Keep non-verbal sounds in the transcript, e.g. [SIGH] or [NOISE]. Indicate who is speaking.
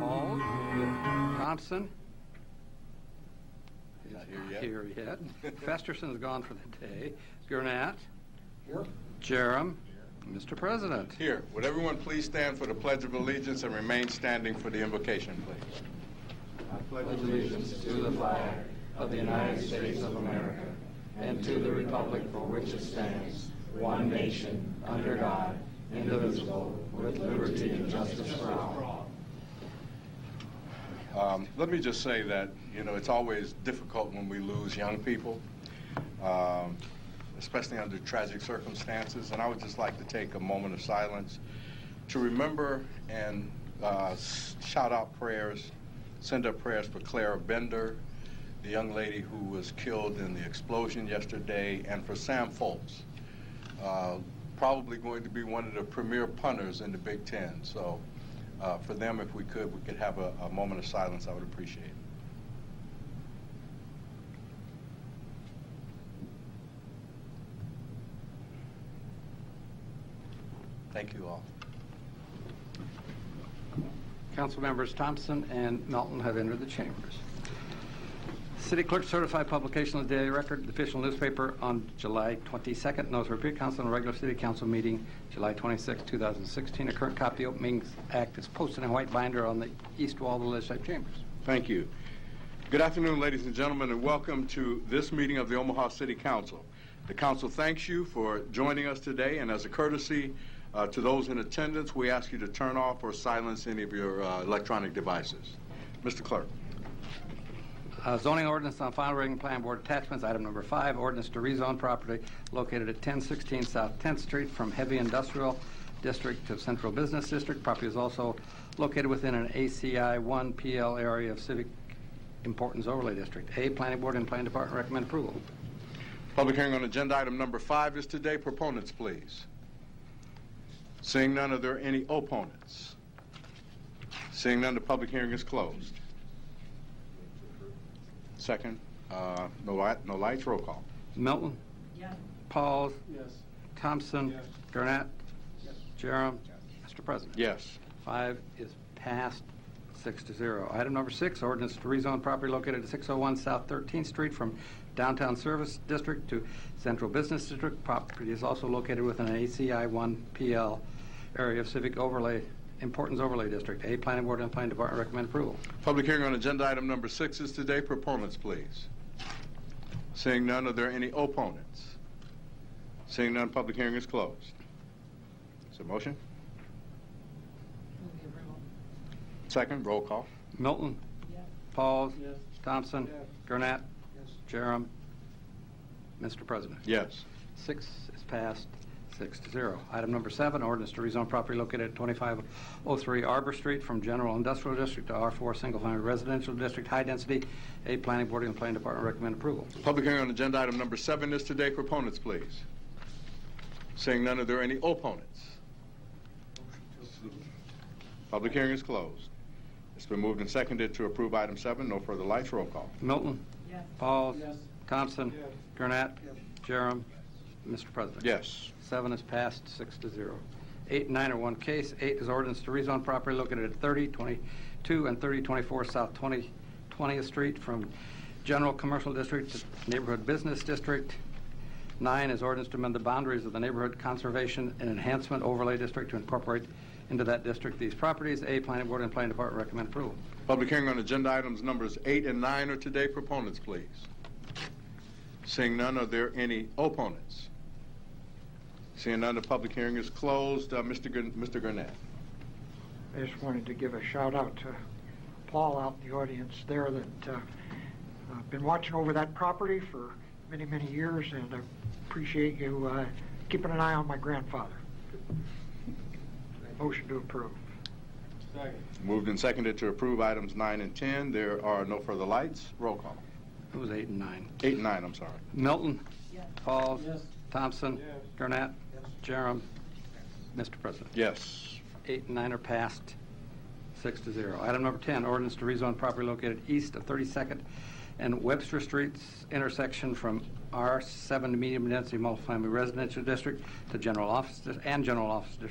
Speaker 1: Paul, Thompson. is
Speaker 2: Not here
Speaker 1: not
Speaker 2: yet.
Speaker 1: here yet. [LAUGHS] Festerson is gone for the day. Gurnett. Here. Jerem. Mr. President.
Speaker 2: Here, would everyone please stand for the Pledge of Allegiance and remain standing for the invocation, please?
Speaker 1: pledge allegiance to the flag of the United States of America and to the republic for which it stands, one nation, under God, indivisible, with liberty and justice for all.
Speaker 2: Um, Let me just say that, you know, it's always difficult when we lose young people, um, especially under tragic circumstances. And I would just like to take a moment of silence to remember and uh, s- shout out prayers, send up prayers for Clara Bender, the young lady who was killed in the explosion yesterday, and for Sam Foltz, uh, probably going to be one of the premier punters in the Big Ten. So uh, for them, if we could, we could have a, a moment of silence, I would appreciate it. Thank you all.
Speaker 1: Council members Thompson and Melton have entered the chambers. City clerk certified publication of the daily record, the official newspaper on July 22nd. Notice repeat council and regular city council meeting, July 26, 2016. A current copy of the Open Meetings Act is posted in a white binder on the east wall of the legislative chambers.
Speaker 2: Thank you. Good afternoon, ladies and gentlemen, and welcome to this meeting of the Omaha City Council. The council thanks you for joining us today, and as a courtesy uh, to those in attendance, we ask you to turn off or silence any of your uh, electronic devices. Mr. Clerk.
Speaker 1: Uh, Zoning ordinance on final reading, plan board attachments, item number five, ordinance to rezone property located at 1016 South 10th Street from heavy industrial district to central business district. Property is also located within an ACI 1 PL area of civic importance overlay district. A, planning board and plan department recommend approval.
Speaker 2: Public hearing on agenda item number five is today. Proponents, please. Seeing none, are there any opponents? Seeing none, the public hearing is closed. Second, uh, no light, no lights, roll call.
Speaker 1: Milton.
Speaker 3: Yes.
Speaker 1: Pauls.
Speaker 4: Yes.
Speaker 1: Thompson.
Speaker 4: Yes.
Speaker 1: Gurnett.
Speaker 4: Yes.
Speaker 1: Jerem. Mr. President.
Speaker 2: Yes.
Speaker 1: Five is passed, six to zero. Item number six, ordinance to rezone property located at 601 South 13th Street from Downtown Service District to Central Business District. Property is also located within an ACI 1PL area of civic overlay, importance overlay district. A, planning board and planning department recommend approval.
Speaker 2: Public hearing on agenda item number six is today. Proponents, please. Seeing none, are there any opponents? Seeing none, public hearing is closed. Is there a motion?
Speaker 3: Move approval.
Speaker 2: Second, roll call.
Speaker 1: Milton.
Speaker 3: Yes.
Speaker 1: Pauls.
Speaker 4: Yes.
Speaker 1: Thompson.
Speaker 4: Yes.
Speaker 1: Gurnett.
Speaker 4: Yes.
Speaker 1: Jerem. Mr. President.
Speaker 2: Yes.
Speaker 1: Six is passed, six to zero. Item number seven, ordinance to rezone property located at 2503 Arbor Street from General Industrial District to R4 Single Family Residential District, High Density. A, Planning Board and Planning Department recommend approval.
Speaker 2: Public hearing on agenda item number seven is today. Proponents, please. Seeing none, are there any opponents? Public hearing is closed. It's been moved and seconded to approve item seven. No further lights. Roll call.
Speaker 1: Milton.
Speaker 3: Yes.
Speaker 1: Pauls.
Speaker 4: Yes.
Speaker 1: Thompson.
Speaker 4: Yes.
Speaker 1: Gurnett.
Speaker 4: Yes.
Speaker 1: Jerem. Mr. President.
Speaker 2: Yes.
Speaker 1: Seven is passed, six to zero. Eight and nine are one case. Eight is ordinance to rezone property located at 30, 22, and 3024 South 20 20th Street from General Commercial District to Neighborhood Business District. Nine is ordinance to amend the boundaries of the Neighborhood Conservation and Enhancement Overlay District to incorporate into that district these properties. A, Planning Board and Planning Department recommend approval.
Speaker 2: Public hearing on agenda items numbers eight and nine are today. Proponents, please. Seeing none, are there any opponents? Seeing none, the public hearing is closed. Uh, Mr. Gur- Mr. Gurnett.
Speaker 5: I just wanted to give a shout out to Paul out in the audience there that uh, I've been watching over that property for many, many years and I appreciate you uh, keeping an eye on my grandfather. Motion to approve.
Speaker 4: Second.
Speaker 2: Moved and seconded to approve items nine and 10. There are no further lights. Roll call.
Speaker 1: It was eight and nine.
Speaker 2: Eight and nine, I'm sorry.
Speaker 1: Milton.
Speaker 3: Yes.
Speaker 1: Pauls.
Speaker 4: Yes.
Speaker 1: Thompson.
Speaker 4: Yes.
Speaker 1: Gurnett.
Speaker 4: Yes.
Speaker 1: Jerem. Mr. President.
Speaker 2: Yes.
Speaker 1: Eight and nine are passed, six to zero. Item number 10, ordinance to rezone property located east of 32nd and Webster Streets intersection from R7 to medium density multifamily residential district to general office, dis- and general office dis-